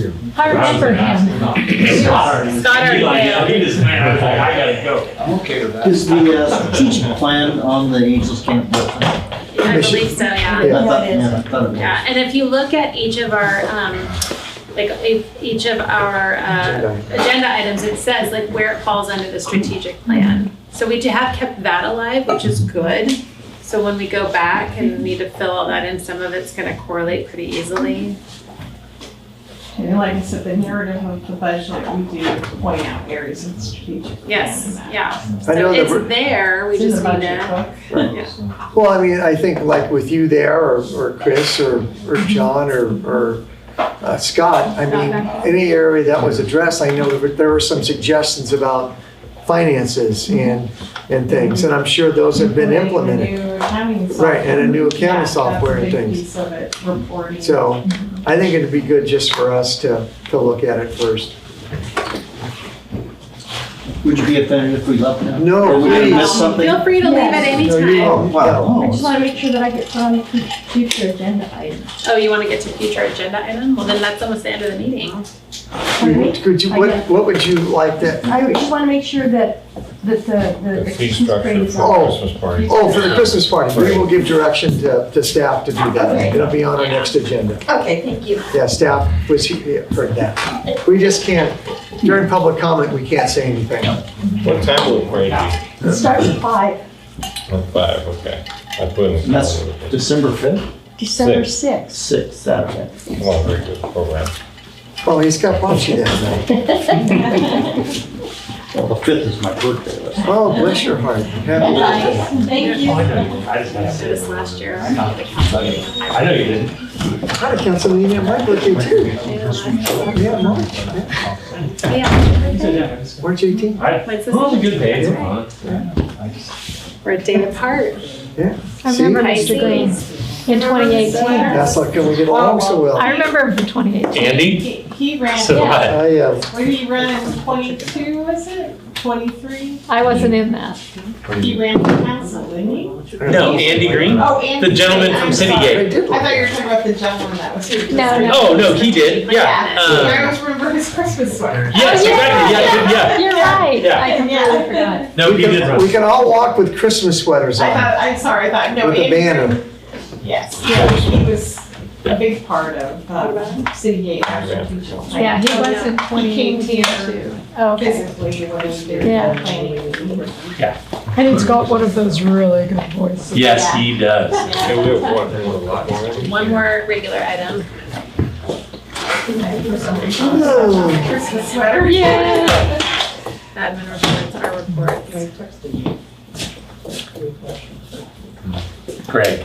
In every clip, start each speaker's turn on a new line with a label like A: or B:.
A: too.
B: I remember him.
C: Scott
D: He like,
C: Arndale.
D: yeah, he just, man, I was like, I gotta go.
E: I'm okay with that.
A: Is the uh, strategic plan on the Angels Camp different? I
C: I believe so, yeah.
A: thought- yeah, I thought it was.
C: Yeah, and if you look at each of our, um, like, e- each of our, uh, agenda items, it says like where it falls under the strategic plan. So we do have kept that alive, which is good. So when we go back and need to fill all that in, some of it's gonna correlate pretty easily.
F: And like I said, the narrative of the budget, we do point out areas of strategic. plan in
C: Yes,
F: that.
C: yeah.
G: I
C: So
G: know the
C: it's there, we
F: It's in the
C: just need
F: budget
C: to.
F: book.
G: Well, I mean, I think like with you there, or, or Chris, or, or John, or, or uh, Scott, I mean, any area that was addressed, I know there were- there were some suggestions about finances and, and things, and I'm sure those have been
F: Including
G: implemented.
F: the new accounting software.
G: Right, and a new
F: Yeah,
G: accounting
F: that's a
G: software and
F: big
G: things.
F: piece of it, reporting.
G: So I think it'd be good just for us to, to look at it first.
A: Would you be offended if we left now?
G: No,
A: Or would we
G: please.
A: miss something?
C: Um, Feel free to leave at any
G: No, you Oh.
C: time.
G: won't. No.
A: Wow.
H: I just want to make sure that I get put on the future agenda item.
C: Oh, you wanna get to future agenda item? Well, then that's almost the end of the meeting.
G: Could you, what, what would you like that?
H: I just want to make sure that, that the, the.
I: The fee structure
H: is
I: for
G: Oh.
I: a Christmas party.
G: Oh, for the Christmas party, we will give direction to, to staff to do that. It'll be on our next agenda.
H: Okay, thank you.
G: Yeah, staff was, yeah, heard that. We just can't, during public comment, we can't say anything.
I: What time will it break?
H: It starts at five,
I: Oh, Five, okay. I put in.
A: And that's December fifth?
H: December
I: Six.
H: sixth.
A: Sixth, Saturday.
I: Well, very good program.
G: Oh, he's got punchy that night.
A: Well, the fifth is my birthday, that's
G: Oh, bless your heart. Happy birthday.
H: Thank you.
D: I know, I just gotta
C: I
D: say.
C: did this last year.
E: I'm not excited.
D: I know you didn't.
G: Hi, Councilman, yeah, my birthday too. Yeah, mine.
C: Yeah,
G: March 18th.
C: mine's this-
D: Well, it's a good pay, it's a month.
C: we're a day apart.
B: I
G: See?
B: remember Mr. Green in 2018.
G: That's like, can we get along so well?
B: I remember him from 2018.
D: Andy?
F: He he ran, yeah,
D: So what?
G: I, uh,
F: what did he run, twenty-two, was it? Twenty-three?
B: I wasn't in that.
F: He ran for council, didn't he?
D: No, Andy Green?
F: Oh, and.
D: The gentleman from
F: I'm
D: City
F: sorry.
G: I
D: Gate.
G: did
F: I thought you were
G: like,
F: talking about the gentleman that was. here.
B: No, no.
D: Oh, no, he did, yeah.
F: I
D: Uh,
F: always remember his Christmas sweater.
D: Yes, exactly, yeah, yeah,
B: You're right.
D: Yeah.
B: I completely forgot.
D: yeah. No,
G: we
D: he did
G: can,
D: run.
G: we can all walk with Christmas sweaters
F: I
G: on
F: thought, I'm sorry, I thought, no.
G: with a
F: Andrew-
G: banner.
F: Yes, yeah, he was a big part of, uh, City Gate, our strategic plan.
B: Yeah,
C: Oh,
B: he was in
F: He came
B: 2018.
F: here
B: Oh, okay.
F: physically when he did
B: Yeah.
F: the planning.
J: And he's got one of
B: Oh,
J: those really good voices.
D: Yes, he does.
I: And we have one, one lot more.
C: One more regular item.
G: Oh,
F: Christmas sweater.
B: Yeah.
C: Admin reports, our reports.
D: Greg.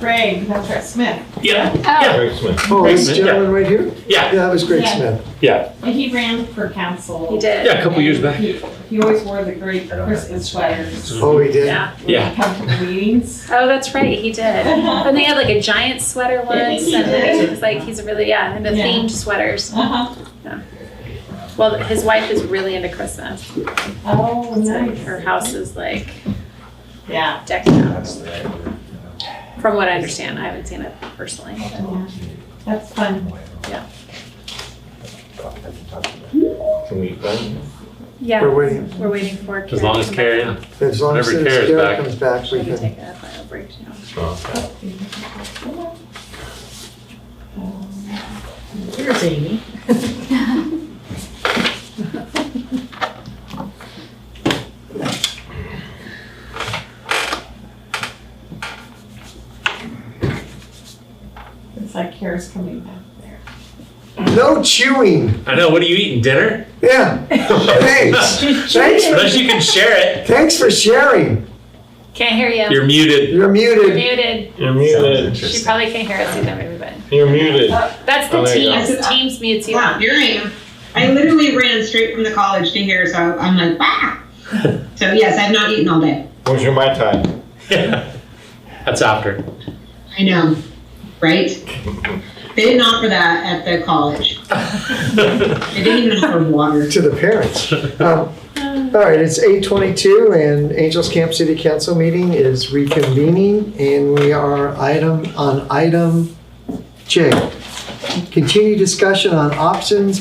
F: Greg, that's right, Smith.
D: Yeah,
B: Oh,
I: Greg Smith.
G: Oh, this
D: Great, yeah.
G: gentleman right here?
D: yeah,
G: Yeah, that was Greg
F: Yeah.
G: Smith.
F: And he ran for council.
C: He did.
D: yeah, a couple years back.
F: He he always wore the great Christmas sweaters.
D: Mm-hmm.
G: Oh, he did?
C: Yeah.
F: when he
D: Yeah.
F: Come to the meetings.
C: Oh, that's right. He did. And they had like a giant sweater once,
F: He
C: and
F: did.
C: it was like he's really yeah into
F: Yeah.
C: themed sweaters.
F: Uh-huh.
C: Well, his wife is really into Christmas.
F: Oh,
C: It's like
F: nice.
C: her house is like
F: Yeah.
C: decked out. From what I understand, I haven't seen it personally.
F: yeah. That's fun.
I: Can we, run?
C: Yeah,
G: We're waiting.
C: we're waiting for. Karen
D: As long as
C: to come
D: Carrie, yeah.
G: As long as
D: Whenever Kara's
G: Sarah
D: back.
G: comes back,
C: Should
G: we
C: we
G: can.
C: take a final break now?
J: Here's Amy.
F: It's like Kara's coming back there.
G: No chewing.
D: I know, what are you eating, dinner?
G: Yeah. Thanks. Thanks.
D: Unless you can share it.
G: Thanks for sharing.
C: Can't hear you.
D: You're muted.
G: You're
C: You're
G: muted.
C: muted.
I: you're
A: Sounds
I: muted,
C: She
A: interesting.
C: probably can't hear us either, everybody.
I: you're muted.
C: That's the
I: Oh, there you go.
C: Teams. Teams mutes you.
K: Wow, here I am. I literally ran straight from the college to here, so I'm like, wow. so yes, I've not eaten all day.
I: What's your my time?
D: That's after.
K: I know, right? They didn't offer that at the college. They didn't even offer water.
G: To the parents. Um, All right, it's 8:22 and Angels Camp City Council meeting is reconvening and we are item on item J. Continued discussion on options,